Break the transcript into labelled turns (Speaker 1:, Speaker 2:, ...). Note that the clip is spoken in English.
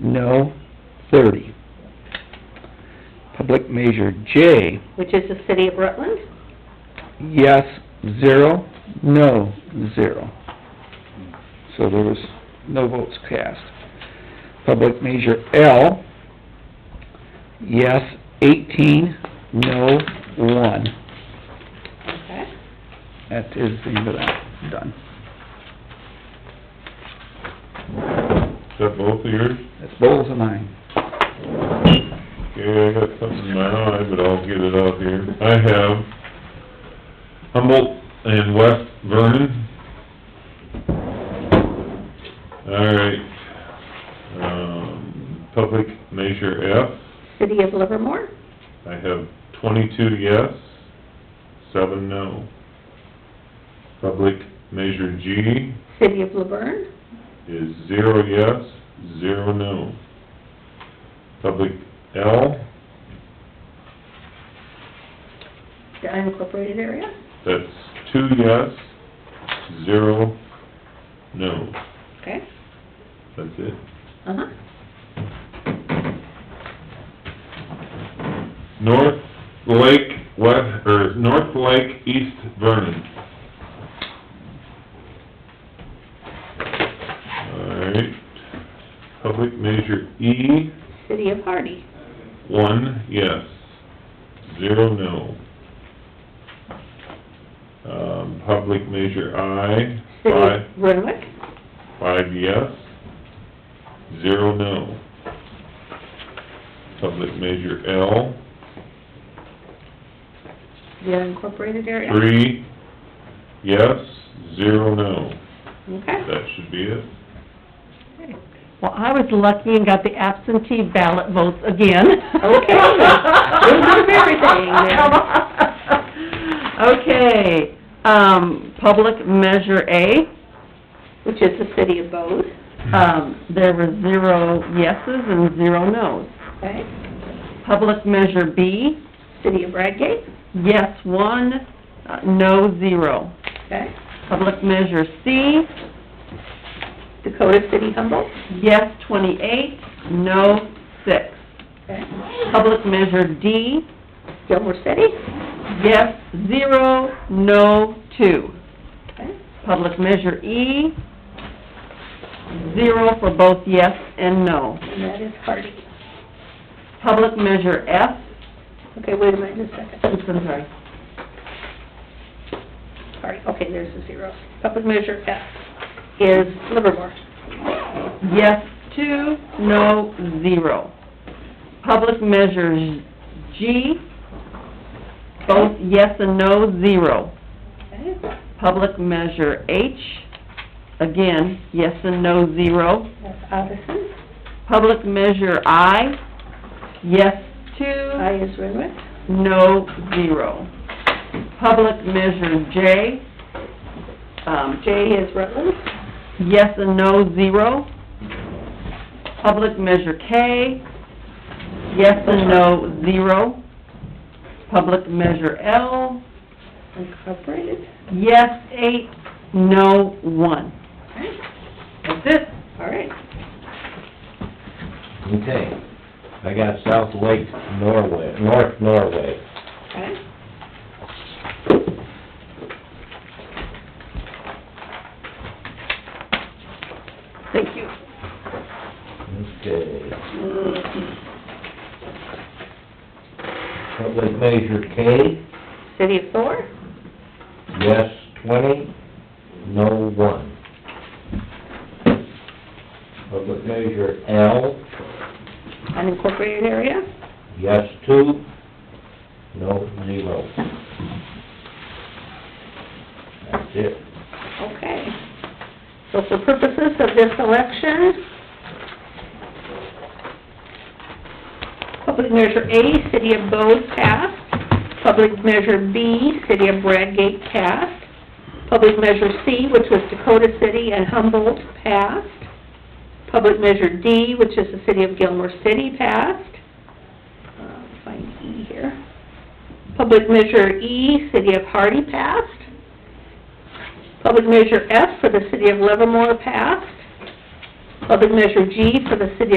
Speaker 1: no, thirty. Public measure J,
Speaker 2: which is the city of Rutland.
Speaker 1: yes, zero, no, zero. So there was no votes cast. Public measure L, yes, eighteen, no, one.
Speaker 2: Okay.
Speaker 1: That is the end of that, done.
Speaker 3: Is that both of yours?
Speaker 1: That's Bowles and mine.
Speaker 3: Okay, I got something in my eye, but I'll get it out here. I have Humboldt and West Vernon. All right, um, public measure F,
Speaker 2: City of Livermore,
Speaker 3: I have twenty-two yes, seven no. Public measure G
Speaker 2: city of Laverne,
Speaker 3: is zero yes, zero no. Public L,
Speaker 2: the unincorporated area.
Speaker 3: That's two yes, zero no.
Speaker 2: Okay.
Speaker 3: That's it.
Speaker 2: Uh-huh.
Speaker 3: North Lake, west, or North Lake, East Vernon. Alright. Public measure E,
Speaker 2: City of Hardy,
Speaker 3: one yes, zero no. Um, public measure I,
Speaker 2: city
Speaker 3: five.
Speaker 2: of Renwick,
Speaker 3: Five yes, zero no. Public measure L,
Speaker 2: the unincorporated area.
Speaker 3: three yes, zero no.
Speaker 2: Okay.
Speaker 3: That should be it.
Speaker 4: Well, I was lucky and got the absentee ballot votes again.
Speaker 2: Okay. We'll do everything
Speaker 4: Okay, um, public measure A,
Speaker 2: Which is the city of Bode.
Speaker 4: um, there were zero yeses and zero nos.
Speaker 2: Okay.
Speaker 4: Public measure B,
Speaker 2: City of Bradgate.
Speaker 4: yes one, uh, no zero.
Speaker 2: Okay.
Speaker 4: Public measure C,
Speaker 2: Dakota City Humboldt.
Speaker 4: yes twenty-eight, no six.
Speaker 2: Okay.
Speaker 4: Public measure D,
Speaker 2: Gilmore City.
Speaker 4: yes zero, no two.
Speaker 2: Okay.
Speaker 4: Public measure E, zero for both yes and no.
Speaker 2: And that is Hardy.
Speaker 4: Public measure F,
Speaker 2: Okay, wait a minute, just a second.
Speaker 4: oops, I'm sorry,
Speaker 2: Sorry, okay, there's the zero. Public measure F is Livermore.
Speaker 4: yes two, no zero. Public measure G, both yes and no, zero.
Speaker 2: Okay.
Speaker 4: Public measure H, again, yes and no, zero.
Speaker 2: That's Addison.
Speaker 4: Public measure I, yes
Speaker 2: I
Speaker 4: two,
Speaker 2: is Renwick.
Speaker 4: no zero. Public measure J, um,
Speaker 2: J is Rutland.
Speaker 4: yes and no, zero. Public measure K, yes and no, zero. Public measure L,
Speaker 2: Incorporated.
Speaker 4: yes eight, no one.
Speaker 2: Okay.
Speaker 4: That's it.
Speaker 2: All right.
Speaker 5: Okay, I got South Lake Norway, North Norway.
Speaker 2: Okay.
Speaker 4: Thank you.
Speaker 5: Okay. Public Measure K,
Speaker 2: City of Thor.
Speaker 5: yes twenty, no one. Public Measure L,
Speaker 2: Unincorporated area.
Speaker 5: yes two, no zero. That's it.
Speaker 2: Okay. So for purposes of this election, public measure A, City of Bode passed. Public measure B, City of Bradgate passed. Public measure C, which was Dakota City and Humboldt passed. Public measure D, which is the City of Gilmore City passed. Uh, Find E here. Public measure E, City of Hardy passed. Public measure F for the city of Livermore passed. Public measure G for the city